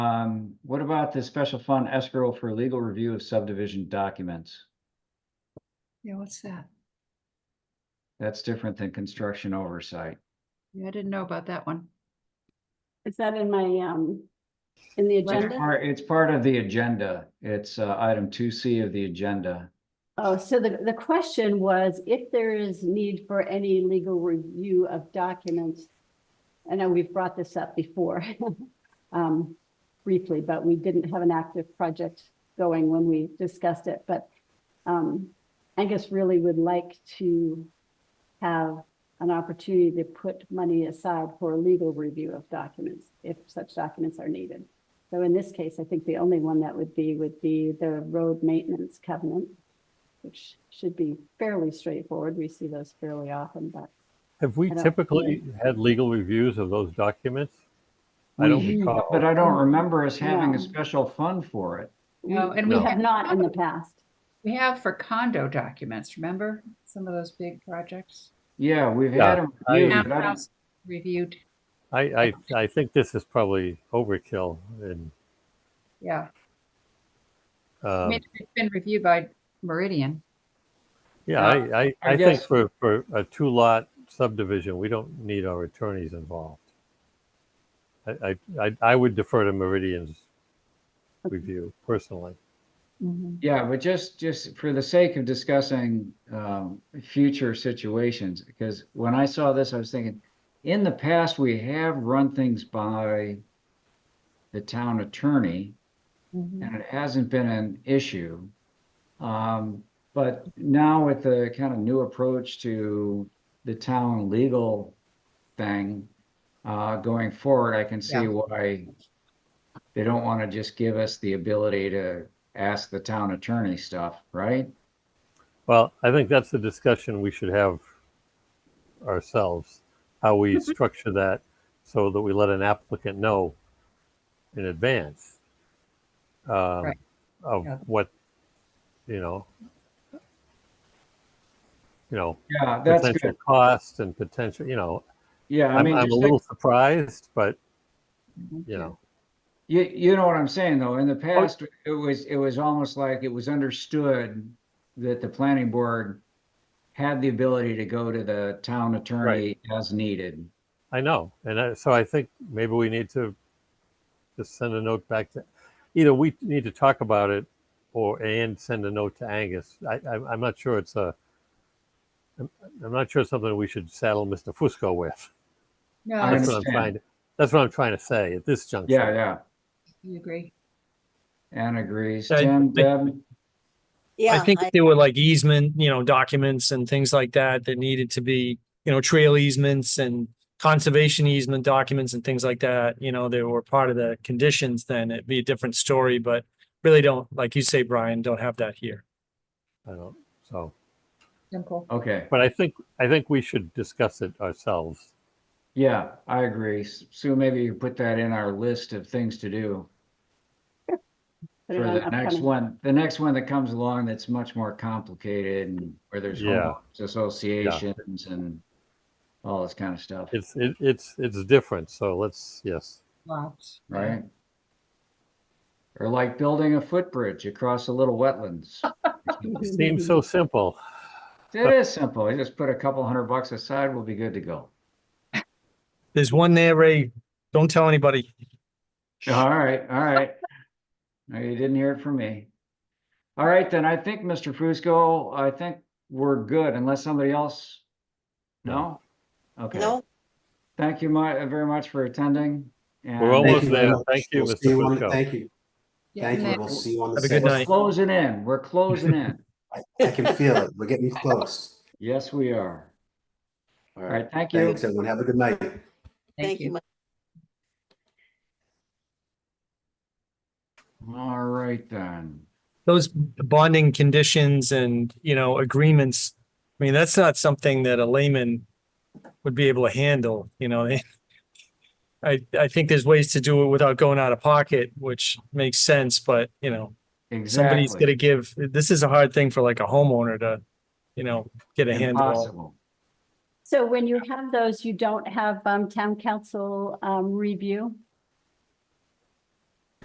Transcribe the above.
Um, what about the special fund escrow for legal review of subdivision documents? Yeah, what's that? That's different than construction oversight. Yeah, I didn't know about that one. Is that in my, um, in the Well, It's agenda? part, it's part of the agenda. It's, uh, item two C of the agenda. Oh, so the, the question was if there is need for any legal review of documents. I know we've brought this up before, um, briefly, but we didn't have an active project going when we discussed it, but, um, Angus really would like to have an opportunity to put money aside for a legal review of documents, if such documents are needed. So in this case, I think the only one that would be, would be the road maintenance covenant which should be fairly straightforward. We see those fairly often, but Have we I don't see typically had legal reviews of those documents? I don't We- recall. But I don't remember us having No. a special fund for it. we, No, and we we have not in the past. We have for condo documents, remember? Some of those big projects. Yeah, we've Yeah, had them. I- reviewed, but I don't- Townhouse Reviewed, I, I, I think this is probably overkill and, yeah. I um, mean, it's been reviewed by Meridian. yeah, I, I, I I think guess- for, for a two lot subdivision, we don't need our attorneys involved. I, I, I- I would defer to Meridian's review personally. Yeah, but just, just for the sake of discussing, um, future situations, because when I saw this, I was thinking, in the past, we have run things by the town attorney. Mm-hmm. and it hasn't been an issue. Um, but now with the kind of new approach to the town legal thing, uh, going forward, I can see Yeah. why they don't want to just give us the ability to ask the town attorney stuff, right? Well, I think that's the discussion we should have ourselves, how we Mm-hmm. structure that so that we let an applicant know in advance um, Right. of Yeah. what, you know, you know, Yeah, that's potential good. costs and potential, you know, Yeah, I I'm, mean, I'm a just little like- Mm-hmm. surprised, but, you know, you, you know what I'm saying though, in the past, it was, it was almost like it was understood that the planning board had the ability to go to the town attorney as needed. I know. And I, so I think maybe we need to just send a note back to either we need to talk about it or and send a note to Angus. I, I, I'm not sure it's a I'm, I'm not sure it's something we should saddle Mr. Fusco with. No, I it's- That's what I'm understand. trying to that's what I'm trying to say at this juncture. Yeah, yeah, you agree. Anne agrees. I Tim, think- Deb, Yeah, I think if there were like easement, you know, documents and things like that that needed to be, you know, trail easements and conservation easement documents and things like that, you know, they were part of the conditions, then it'd be a different story, but really don't, like you say, Brian, don't have that here. I don't so Simple. okay, but I think I think we should discuss it ourselves. yeah, I agree. S- Sue, maybe you put that in our list of things to do Put it for on the next upcoming. one, the next one that comes along that's much more complicated and where there's Yeah. homeowners associations and all this kind of stuff, It's it, it's it's different. So let's yes. Lots. right? Or like building a footbridge across a little wetlands. It seems so simple. It is simple. You just put a couple hundred bucks aside, we'll be good to go. There's one there, Ray. Don't tell anybody. All right, all right. No, you didn't hear it from me. All right, then I think, Mr. Fusco, I think we're good unless somebody else? No? Okay, No, thank you mu- uh, very much for attending. We're and- almost you very there. much. Thank you, We'll Mr. see you on- Fusco. Thank you. Thank you. We'll see you on the Have a good sixth. We're night. closing in, we're closing in. I can feel it. We're getting close. Yes, we are. All All right. right, thank you. Thanks, everyone. Have a good night. Thank you. All right, then. Those bonding conditions and, you know, agreements, I mean, that's not something that a layman would be able to handle, you know? I, I think there's ways to do it without going out of pocket, which makes sense, but, you know, somebody's Exactly. gonna give, this is a hard thing for like a homeowner to, you know, get a handle. on. Impossible. So when you have those, you don't have, um, town council, um, review?